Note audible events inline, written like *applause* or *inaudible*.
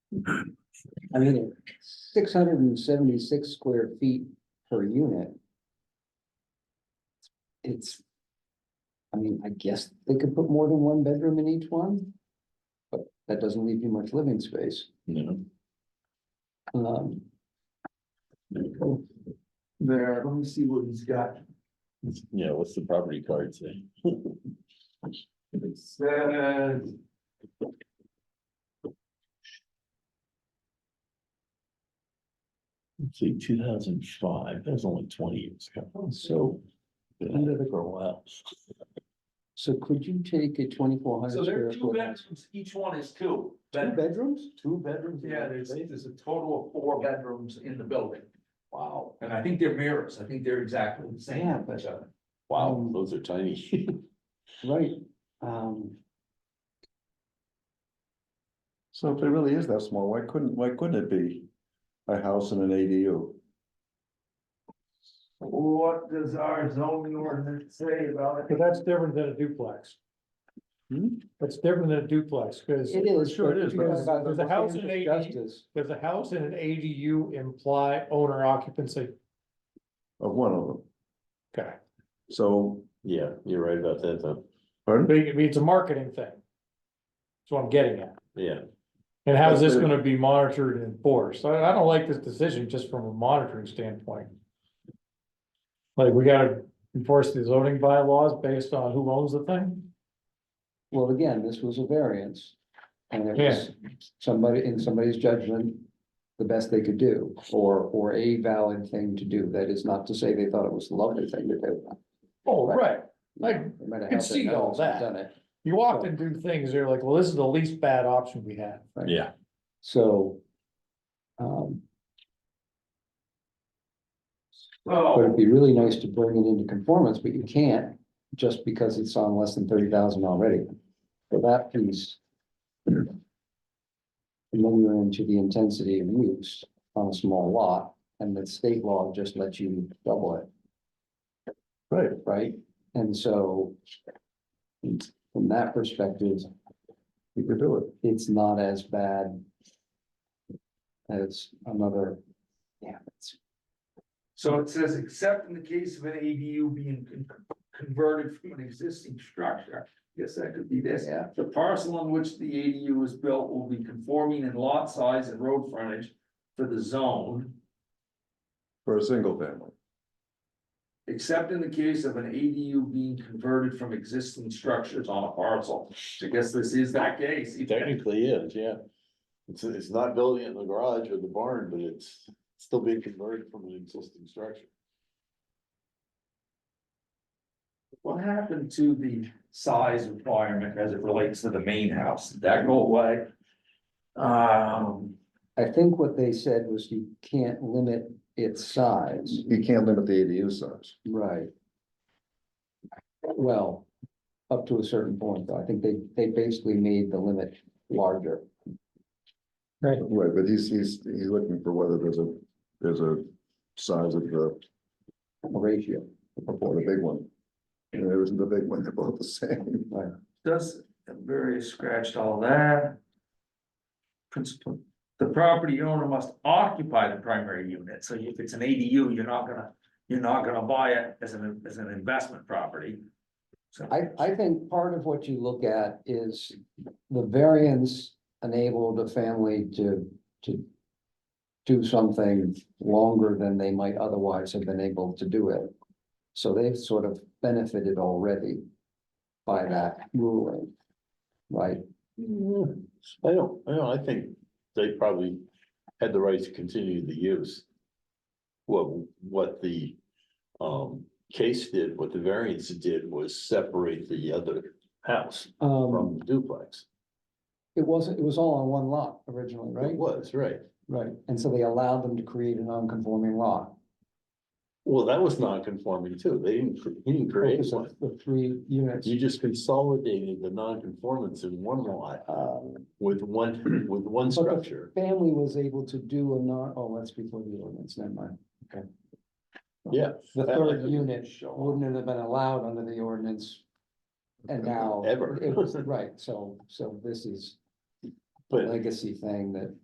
I mean, six hundred and seventy-six square feet per unit. It's. I mean, I guess they could put more than one bedroom in each one. But that doesn't leave you much living space. No. Um, There, let me see what he's got. Yeah, what's the property card say? *laughs* It says. Let's see, two thousand five, that was only twenty years ago. so, Been at it For a while. so could you take a twenty-four hundred So there square are two foot? house- bedrooms, each one is two. Two bedrooms. bedrooms? Two bedrooms? Yeah, there's, there's a total of four bedrooms in the building. Wow. And I think they're mirrors, I think they're exactly the same. uh, Yeah, but- Wow, Mm. those are tiny. *laughs* Right, um, So if it really is that small, why couldn't, why couldn't it be a house and an ADU? What does our zoning ordinance say about But that's different than a duplex. Hmm? That's different than a duplex, because it is. Sure it but is, you but know there's- about there's a house and standard an of ADU. justice. does a house and an ADU imply owner occupancy? Of one of them, Okay, so, Yeah, you're right about that, though. pardon? but it- it's a marketing thing. That's what I'm getting at. Yeah, And how's But this the- gonna be monitored and enforced? I, I don't like this decision just from a monitoring standpoint. Like, we gotta enforce the zoning bylaws based on who owns the thing? Well, again, this was a variance. And it was somebody, in somebody's judgment, the best they could do, or, or a valid thing to do. That is not to say they thought it was the lovely thing to do. Oh, right. I They might have can helped their see all parents and that. Done it, You often do things, you're like, well, this is the least bad option we have. yeah, so. Um, but it'd So, be really nice to bring it into conformance, but you can't just because it's on less than thirty thousand already. So that piece. And then you're into the intensity of use on a small lot, and the state law just lets you double it. Right. Right, and so. From that perspective, You could do it. it's not as bad. As another, yeah, it's, so it says, except in the case of an ADU being con- converted from an existing structure. Guess that could be this. yeah, The parcel on which the ADU is built will be conforming in lot size and road frontage for the zone. for a single family. Except in the case of an ADU being converted from existing structures on a parcel. I guess this is that case. technically is, yeah. It's, it's not building it in the garage or the barn, but it's still being converted from an existing structure. What happened to the size requirement as it relates to the main house? Did that go away? Um, I think what they said was you can't limit its size. You can't limit the ADU size. Right. Well, up to a certain point, though, I think they, they basically made the limit larger. Right, but he's, he's, he's looking for whether there's a, there's a size of the, Ratio, or the big one. And there isn't a big one, they're both the same. does, very scratched all that. Principle, the property owner must occupy the primary unit, so if it's an ADU, you're not gonna, you're not gonna buy it as an, as an investment property. So- I, I think part of what you look at is the variance enabled a family to, to. Do something longer than they might otherwise have been able to do it. So they've sort of benefited already by that ruling. Right, I don't, I don't, I think they probably had the right to continue the use. What, what the, um, case did, what the variance did was separate the other house um, from the duplex. it wasn't, it was all on one lot originally, right? It was, right. Right, and so they allowed them to create a non-conforming lot. Well, that was non-conforming too. They didn't, cr- he didn't create Because one. of The three units, You just consolidated the non-conformance in one lot uh, with one, with one But the- structure. family was able to do a non, oh, that's before the ordinance, never mind, okay. Yeah. The That third doesn't unit show. wouldn't have been allowed under the ordinance. And *laughs* now. Ever. It was, right, so, so this is But a legacy thing that